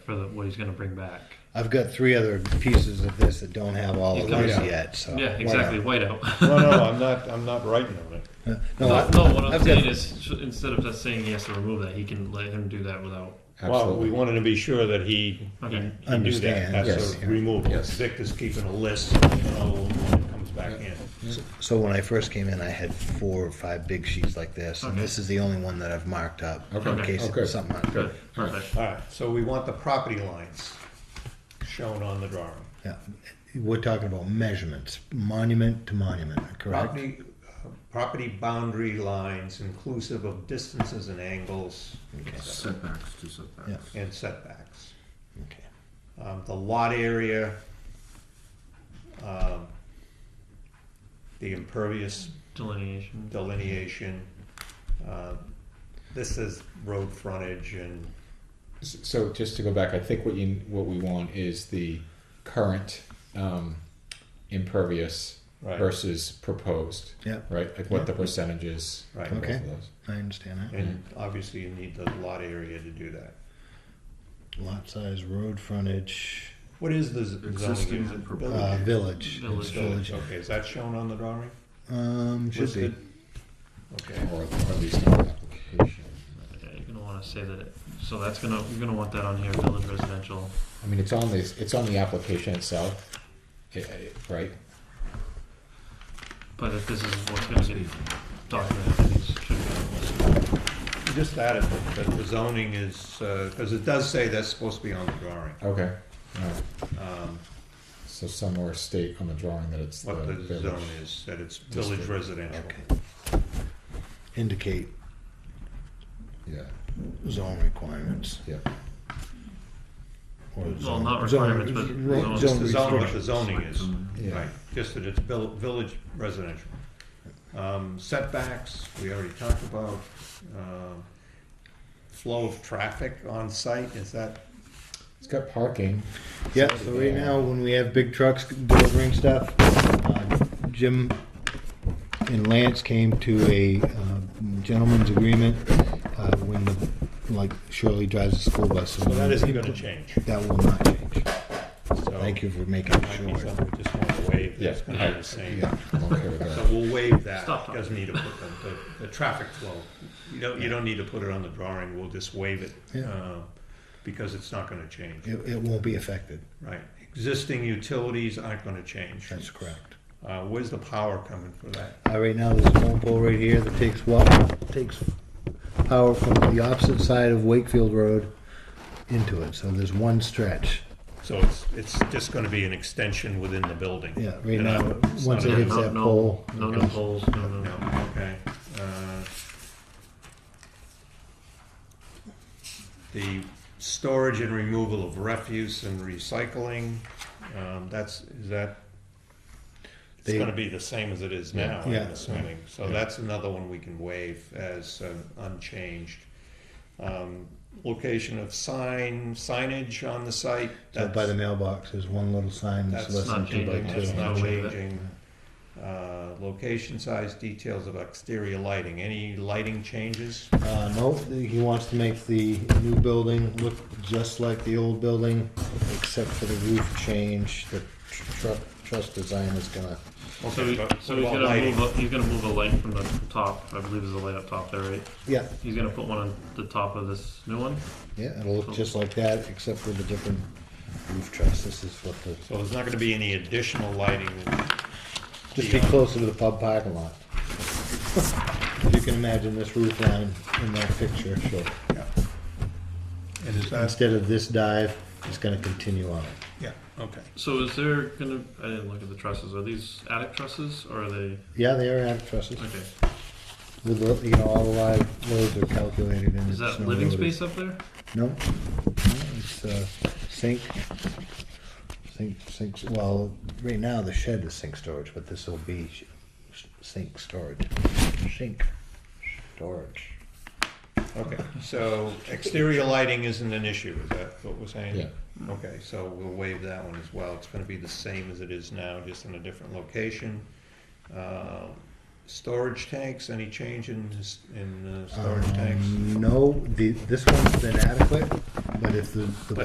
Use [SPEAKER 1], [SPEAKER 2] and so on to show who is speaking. [SPEAKER 1] for the, what he's going to bring back.
[SPEAKER 2] I've got three other pieces of this that don't have all of
[SPEAKER 1] Okay.
[SPEAKER 2] these
[SPEAKER 3] Yeah.
[SPEAKER 2] yet. So
[SPEAKER 1] yeah, exactly. Whiteout.
[SPEAKER 3] No, no, I'm not, I'm not writing on it.
[SPEAKER 2] No,
[SPEAKER 1] no,
[SPEAKER 2] I,
[SPEAKER 1] no, what I'm
[SPEAKER 2] I've
[SPEAKER 1] saying
[SPEAKER 2] got,
[SPEAKER 1] is sh- instead of just saying he has to remove that, he can let him do that without.
[SPEAKER 3] Well, we
[SPEAKER 4] Absolutely.
[SPEAKER 3] wanted to be sure that he, he-
[SPEAKER 1] Okay.
[SPEAKER 3] he knew that,
[SPEAKER 2] Understand,
[SPEAKER 3] that's
[SPEAKER 2] yes.
[SPEAKER 3] a removal.
[SPEAKER 4] Yes.
[SPEAKER 3] Dick is keeping a list, you know, when it comes back in.
[SPEAKER 2] so when I first came in, I had four or five big sheets like this, and
[SPEAKER 1] Okay.
[SPEAKER 2] this is the only one that I've marked up
[SPEAKER 4] Okay.
[SPEAKER 2] in
[SPEAKER 1] Okay.
[SPEAKER 2] case
[SPEAKER 4] Okay.
[SPEAKER 2] something.
[SPEAKER 1] Good.
[SPEAKER 4] All right.
[SPEAKER 1] Perfect.
[SPEAKER 3] All right, so we want the property lines shown on the drawing.
[SPEAKER 2] Yeah, we're talking about measurements, monument to monument, correct?
[SPEAKER 3] Property, uh, property boundary lines inclusive of distances and angles
[SPEAKER 4] Setbacks to setbacks.
[SPEAKER 2] Yeah.
[SPEAKER 3] and setbacks.
[SPEAKER 2] Okay.
[SPEAKER 3] Um, the lot area, um, the impervious
[SPEAKER 1] Delineation.
[SPEAKER 3] delineation. uh, This is road frontage and,
[SPEAKER 4] S- So just to go back, I think what you, what we want is the current um, impervious
[SPEAKER 3] Right.
[SPEAKER 4] versus proposed,
[SPEAKER 2] Yeah,
[SPEAKER 4] right? Like what the percentage is.
[SPEAKER 3] Right.
[SPEAKER 4] for both
[SPEAKER 2] Okay.
[SPEAKER 4] of those.
[SPEAKER 2] I understand that.
[SPEAKER 3] and obviously you need the lot area to do that.
[SPEAKER 2] Lot size, road frontage,
[SPEAKER 3] What is the z-
[SPEAKER 5] Existing
[SPEAKER 3] zoning? Is it
[SPEAKER 5] and
[SPEAKER 3] village?
[SPEAKER 2] uh, village.
[SPEAKER 1] Village.
[SPEAKER 2] It's
[SPEAKER 3] Village, okay, is that shown on the drawing?
[SPEAKER 2] Um, should be.
[SPEAKER 3] Listed? Okay,
[SPEAKER 4] Or or at least on the application.
[SPEAKER 1] Yeah, you're going to want to say that. It, so that's going to you're going to want that on here. Village residential.
[SPEAKER 4] I mean, it's on the, it's on the application itself, i- i- right?
[SPEAKER 1] But if this is what's going to get documented, then it should be. on the list.
[SPEAKER 3] just that, if- that the zoning is, because it does say that's supposed to be on the drawing.
[SPEAKER 4] Okay. All right.
[SPEAKER 3] um,
[SPEAKER 4] So somewhere state on the drawing that it's the
[SPEAKER 3] What the
[SPEAKER 4] Uh, village.
[SPEAKER 3] zone is, that it's village
[SPEAKER 4] District.
[SPEAKER 3] residential.
[SPEAKER 2] Okay. Indicate
[SPEAKER 4] Yeah,
[SPEAKER 2] zone requirements.
[SPEAKER 4] yeah.
[SPEAKER 2] or
[SPEAKER 1] Well,
[SPEAKER 2] zone-
[SPEAKER 1] not
[SPEAKER 2] zone-
[SPEAKER 1] requirements, but
[SPEAKER 2] ro-
[SPEAKER 1] zone-
[SPEAKER 3] Just the zone, what the
[SPEAKER 2] restrictions.
[SPEAKER 3] zoning is,
[SPEAKER 4] Yeah.
[SPEAKER 3] right, just that it's vil- village residential. Um, Setbacks, we already talked about. um, Flow of traffic on site, is that,
[SPEAKER 4] It's got parking.
[SPEAKER 2] Yeah, so right now, when we have big trucks delivering stuff, uh, Jim and Lance came to a uh, gentleman's agreement uh, when, the like Shirley drives the school bus.
[SPEAKER 3] so that isn't gonna change.
[SPEAKER 2] That will not change.
[SPEAKER 3] So
[SPEAKER 2] Thank you for making
[SPEAKER 3] Might be
[SPEAKER 2] sure.
[SPEAKER 3] something we just wanna waive, that's
[SPEAKER 4] Yeah.
[SPEAKER 3] gonna be the same.
[SPEAKER 4] Yeah, I'm okay with
[SPEAKER 3] So
[SPEAKER 4] that.
[SPEAKER 3] we'll waive that,
[SPEAKER 1] Stop talking.
[SPEAKER 3] doesn't need to put them, the, the traffic flow. You don't, you don't need to put it on the drawing, we'll just waive it,
[SPEAKER 2] Yeah.
[SPEAKER 3] uh, because it's not gonna change.
[SPEAKER 2] It, it won't be affected.
[SPEAKER 3] Right, existing utilities aren't gonna change.
[SPEAKER 2] That's correct.
[SPEAKER 3] Uh, where's the power coming for that?
[SPEAKER 2] Uh, right now, there's a phone pole right here that takes what takes power from the opposite side of Wakefield Road into it. So there's one stretch.
[SPEAKER 3] So it's, it's just gonna be an extension within the building?
[SPEAKER 2] Yeah, right
[SPEAKER 3] And
[SPEAKER 2] now,
[SPEAKER 3] I'm- it's
[SPEAKER 2] once it
[SPEAKER 3] not a-
[SPEAKER 2] hits
[SPEAKER 1] no,
[SPEAKER 2] that
[SPEAKER 1] no,
[SPEAKER 2] pole,
[SPEAKER 1] No
[SPEAKER 2] it
[SPEAKER 1] new
[SPEAKER 2] goes-
[SPEAKER 1] poles. No, no.
[SPEAKER 3] No, okay. Uh, The storage and removal of refuse and recycling, um, that's, is that, it's
[SPEAKER 2] They-
[SPEAKER 3] gonna be the same as it is
[SPEAKER 4] Yeah.
[SPEAKER 3] now, I'm
[SPEAKER 2] Yeah.
[SPEAKER 3] assuming. So that's another one we can waive as uh, unchanged. Um, Location of sign, signage on the site.
[SPEAKER 2] So by
[SPEAKER 3] that's-
[SPEAKER 2] the mailbox, there's one little sign that's
[SPEAKER 3] that's
[SPEAKER 2] less than
[SPEAKER 1] not
[SPEAKER 2] two by
[SPEAKER 1] changing.
[SPEAKER 2] two.
[SPEAKER 3] That's not
[SPEAKER 1] No way that-
[SPEAKER 3] changing. Uh, Location, size, details of exterior lighting. Any lighting changes?
[SPEAKER 2] Uh, no, he wants to make the new building look just like the old building, except for the roof change. The tr- tr- trust design is gonna,
[SPEAKER 1] So, he,
[SPEAKER 3] Okay, but
[SPEAKER 1] so
[SPEAKER 3] what
[SPEAKER 1] he's
[SPEAKER 3] about
[SPEAKER 1] gonna
[SPEAKER 3] lighting?
[SPEAKER 1] move. A, he's gonna move a light from the top. I believe there's a light up top there, right?
[SPEAKER 2] yeah,
[SPEAKER 1] He's gonna put one on the top of this new one.
[SPEAKER 2] yeah, it'll look just like that, except for the different roof truss. This is what the,
[SPEAKER 3] So there's not gonna be any additional lighting.
[SPEAKER 2] just be closer to the pub parking lot. If You can imagine this roof line in that picture, sure.
[SPEAKER 3] Yeah. And is that,
[SPEAKER 2] Instead of this dive, it's gonna continue on.
[SPEAKER 3] yeah, okay.
[SPEAKER 1] So is there gonna? I didn't look at the trusses. Are these attic trusses or are they?
[SPEAKER 2] Yeah, they are attic trusses.
[SPEAKER 1] Okay.
[SPEAKER 2] With the, you know, all the live loads are calculated in.
[SPEAKER 1] Is
[SPEAKER 2] the
[SPEAKER 1] that
[SPEAKER 2] snow
[SPEAKER 1] living
[SPEAKER 2] loaded.
[SPEAKER 1] space up there?
[SPEAKER 2] No, no, it's uh, sink, sink, sink. Well, right now the shed is sink storage, but this will be sh- sh- sink storage, sink storage.
[SPEAKER 3] Okay, so exterior lighting isn't an issue, is that what we're saying?
[SPEAKER 4] Yeah.
[SPEAKER 3] Okay, so we'll waive that one as well. It's gonna be the same as it is now, just in a different location. Uh, Storage tanks, any change in, s- in uh, storage tanks?
[SPEAKER 2] Um, No, the this one's been adequate, but if the, the